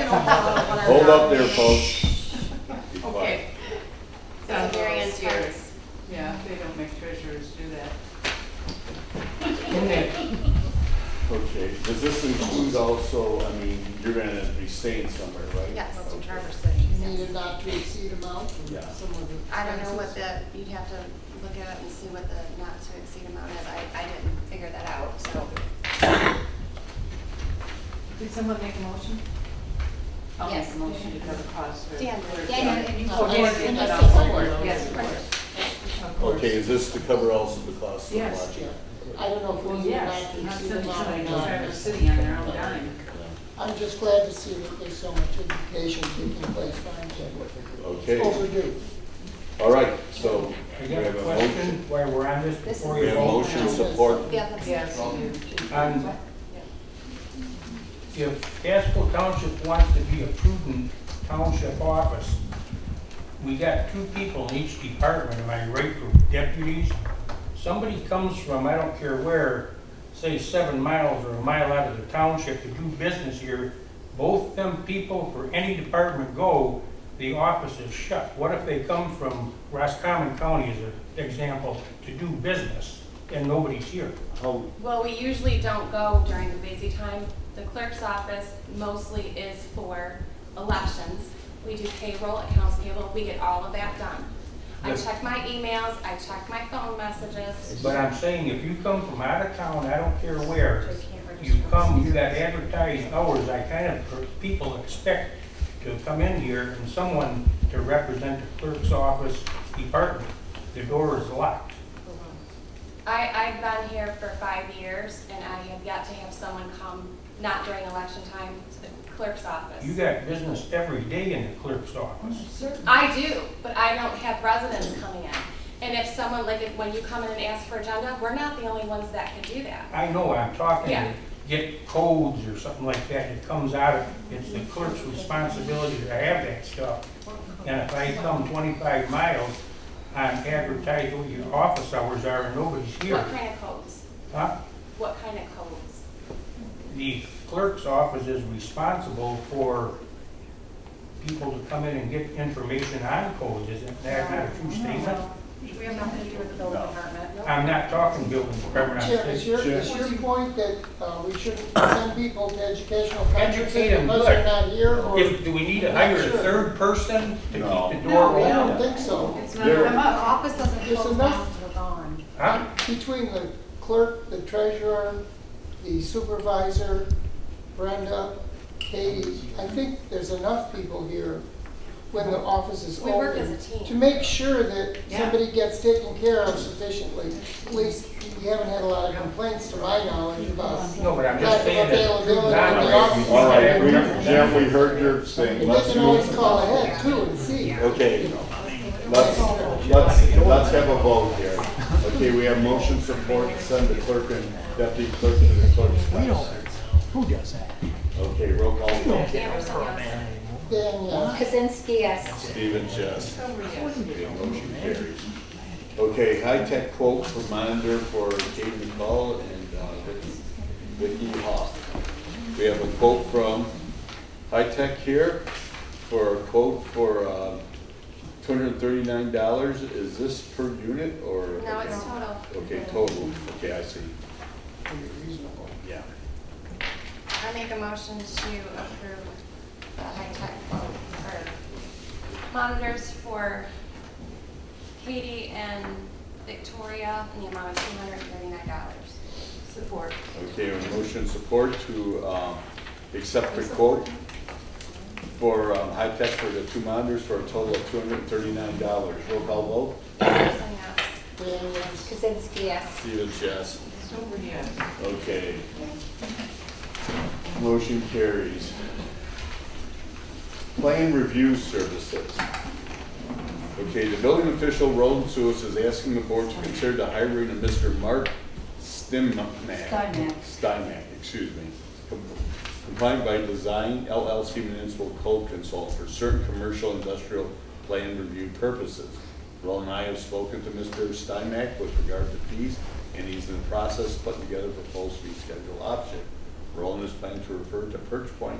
Hold up there, folks. Be quiet. Okay. That's Sounds Mary Ann's scary. parents. Yeah, they don't make treasurers do that. Okay, does this include also, I mean, you're gonna be staying somewhere, right? Yes, in Okay. Traverse City. Need yes. a not to exceed amount from Yeah. some of the. I don't know what expenses. the, you'd have to look it up and see what the not to exceed amount is. I, I didn't figure that out, so. Did someone make a motion? I'll make Yes. a motion to cover costs for. Dan, for- Dan, and you- Oh, Yes, Dan, and but you I'll support. support, Yes, of Right. course. Of course. Okay, is this to cover also the cost of Yes. lodging? Yeah. I don't know if we Well, need a not yes, to not exceed something amount or like not. Traverse City on their own dime. I'm just glad to see that there's so much education taking place, finally. Okay, Overdue. all right, so I we got a have a question motion. while we're on this This before is- We you have vote. a motion support. Yeah, that's. Yes, you do. Um, If Casco Township wants to be a prudent township office, we got two people in each department, am I right, for deputies? Somebody comes from, I don't care where, say seven miles or a mile out of the township to do business here, both them people for any department go, the office is shut. What if they come from Roscommon County as an example to do business and nobody's here? How, Well, we usually don't go during the busy time. The clerk's office mostly is for elections. We do payroll, accounts payable, we get all of that done. I Yes. check my emails, I check my phone messages. But I'm saying, if you come from out of town, I don't care where, Just can't register. you come, you got advertised hours, I kind of, people expect to come in here and someone to represent the clerk's office department. The door is locked. I, I've been here for five years and I have yet to have someone come, not during election time, to the clerk's office. You got business every day in the clerk's office. I do, but I don't have residents coming in. And if someone, like, if- when you come in and ask for agenda, we're not the only ones that can do that. I know, I'm talking, Yeah. to get codes or something like that, it comes out, of it's the clerk's responsibility to have that stuff. And if I come twenty-five miles, I'm advertising what your office hours are and nobody's here. What kind of codes? Huh? What kind of codes? The clerk's office is responsible for people to come in and get information on codes, isn't that not a true statement? We have nothing to do with the building No. department. I'm not talking building department, Chair, I'm is saying, your, is Chair. your point that uh, we shouldn't send people to educational conferences Educate 'em, because good. they're not here? or- if, do we need to hire a third person to keep No. the No, door we I open? don't think so. It's not- There- The office doesn't There's close down enough- till dawn. Huh? Between the clerk, the treasurer, the supervisor, Brenda, Katie, I think there's enough people here when the office is We open. work as a team. To make sure that Yeah. somebody gets taken care of sufficiently. At least, we haven't had a lot of complaints to my knowledge about No, but I'm just lack saying of that. availability in the office. all right, we, Jim, we heard your thing. And Let's they can do- always call ahead too and see. Okay, let's, let's, let's have a vote here. Okay, we have motion support, send the clerk and deputy clerk to the clerk's desk. Who does that? Okay, roll call vote. Anderson, yes. Then, yeah. Kazinsky, yes. Stephen, yes. Okay, motion carries. Okay, high-tech quote for monitor for Kate McCall and uh, Vicky- Vicky Hoff. We have a quote from High-Tech here for a quote for uh, $239. Is this per unit or? No, it's total. Okay, total, okay, I see, Reasonable. yeah. I make a motion to approve the high-tech vote for monitors for Katie and Victoria in the amount of two hundred and thirty-nine dollars. Support. Okay, a motion support to um, accept the quote for um, high tech for the two monitors for a total of two hundred and thirty-nine dollars. Roll call vote. Anderson, yes. Then, yes. Kazinsky, yes. Stevens, yes. Stover, yes. Okay. Motion carries. Plan review services. Okay, the building official, Roland Suis, is asking the board to consider the hiring of Mr. Mark Stimmak. Steinmack. Steinmack, excuse me. Com- Compliant by Design LLC Municipal Code Consult for certain commercial industrial plan review purposes. Roland and I have spoken to Mr. Steinmack with regard to fees, and he's in the process of putting together a proposed fee schedule option. Roland is planning to refer to Perch Point